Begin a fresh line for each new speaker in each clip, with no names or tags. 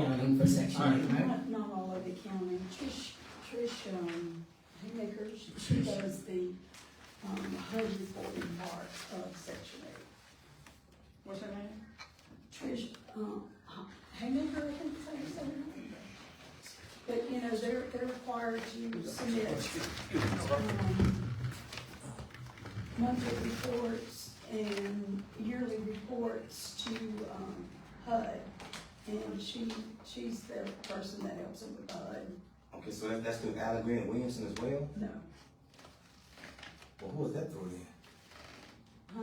for section
Alright,
eight.
ma'am.
right?
Not, not all over the county, Trish, Trish, um, Haymaker, she- she does the, um, HUD reporting part of section eight.
What's her name?
Trish, um, Haymaker, I think, is that her name? But, you know, they're, they're required to submit, um, monthly reports and yearly reports to, um, HUD. And she, she's the person that helps them with HUD,
Okay, so that- that's through Allen Green and Williamson as well?
no.
Well, who is that through then?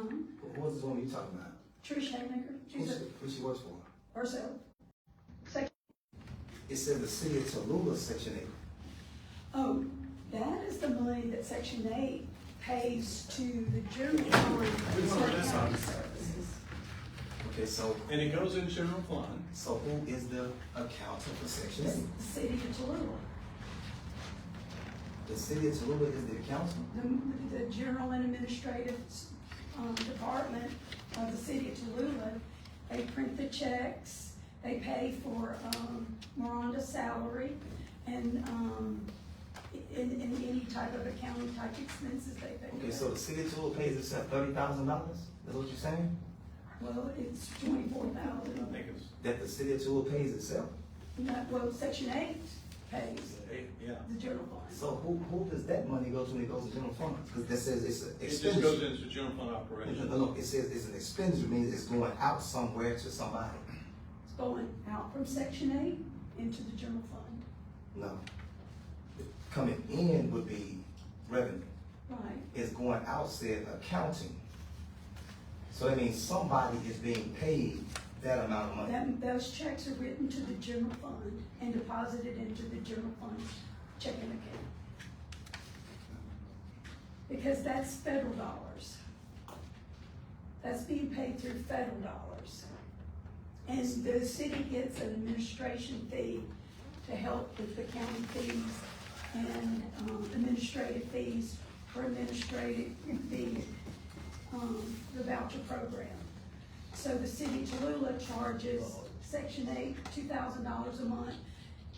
Um,
Who- Who is this woman you talking about?
Trish Haymaker,
Who
she's
she,
a,
who she works for?
herself. Sec-
It says the city of Tallulah, section eight.
oh, that is the money that section eight pays to the general fund
We
for
want to
certain
miss
county
out.
services.
Okay, so,
And it goes in general fund.
so who is the accountant for section
It's
eight?
the city of Tallulah.
The city of Tallulah is the accountant?
The, the general and administrative, um, department of the city of Tallulah, they print the checks, they pay for, um, Miranda's salary and, um, in, in any type of accounting type expenses they pay.
Okay,
for.
so the city of Tallulah pays itself thirty thousand dollars? That's what you're saying?
Well, it's twenty-four
I
thousand,
think it's,
That the city of Tallulah pays itself?
that, well, section eight pays
eight, yeah.
the general fund.
So who, who does that money go to when it goes to general fund? Cause that says it's an
It just goes
expenditure.
into general fund
No,
operations.
no, no, it says it's an expenditure, means it's going out somewhere to somebody.
It's going out from section eight into the general fund,
No. Coming in would be revenue.
right?
It's going out said accounting. So that means somebody is being paid that amount of money.
That, those checks are written to the general fund and deposited into the general fund checking account. Because that's federal dollars. That's being paid through federal dollars. And the city gets an administration fee to help with the county fees and, um, administrative fees for administrative, the, um, the voucher program. So the city of Tallulah charges section eight, two thousand dollars a month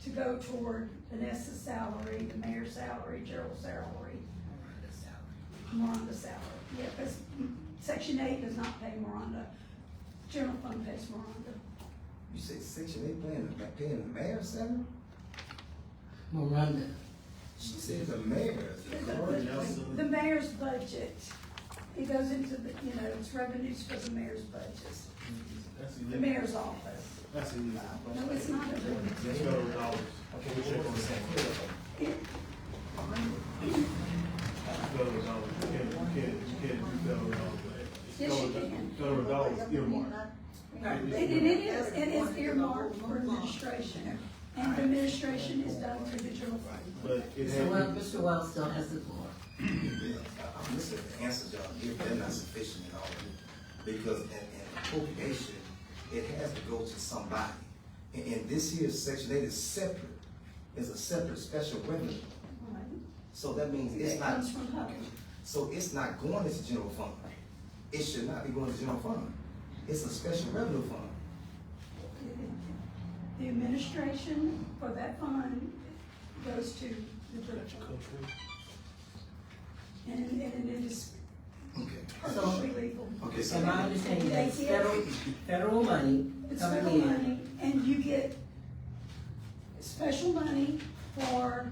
to go toward Vanessa's salary, the mayor's salary, Gerald's salary. Miranda's salary, yeah, because section eight does not pay Miranda, general fund pays Miranda.
You say section eight paying, the ma- paying the mayor salary?
Miranda,
She said the mayor.
The- the- The mayor's budget, it goes into the, you know, it's revenues for the mayor's budget,
That's
the
illegal.
mayor's office.
That's illegal.
No, it's not a,
That's federal dollars.
Okay, we check on the same.
it,
That's federal dollars. You can't, you can't, you can't do federal dollars. It's
Yes, you
federal-
can.
Federal dollars earmarked.
And it is, it is earmarked for administration, and the administration is done through the general fund.
But it
so well,
had,
Mr. Wells still has the floor.
Yeah, I- I'm listening to the answers y'all give, they're not sufficient at all. Because in, in appropriation, it has to go to somebody. And, and this here's section eight is separate, It's a separate special revenue. So that means it's
It
not,
comes from HUD.
so it's not going into general fund. It should not be going to general fund. It's a special revenue fund.
The administration for that fund goes to the general fund. And, and it is
Okay.
perfectly legal.
Okay, so
So my understanding is that's federal, federal money
It's federal
coming in.
money, and you get special money for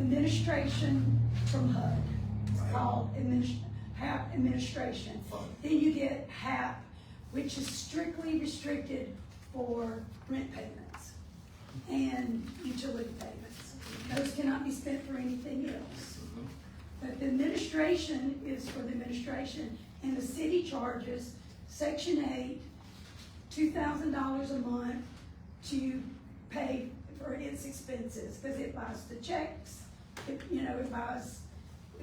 administration from HUD. It's called adminis- HAP administration. Then you get HAP, which is strictly restricted for rent payments and utility payments. Those cannot be spent for anything else. But the administration is for the administration, and the city charges section eight two thousand dollars a month to pay for its expenses, because it buys the checks. It, you know, it buys,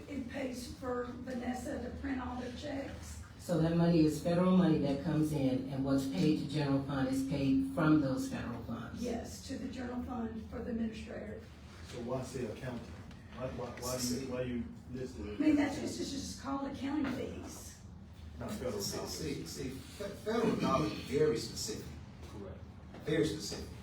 it pays for Vanessa to print all the checks.
So that money is federal money that comes in, and what's paid to general fund is paid from those federal funds.
Yes, to the general fund for the administrator.
so why say accounting? Why, why, why you, why you listed it?
I mean, that's just, it's just called accounting fees.
Not federal
See,
dollars.
see, see, fe- federal dollars are very specific.
Correct.
very specific.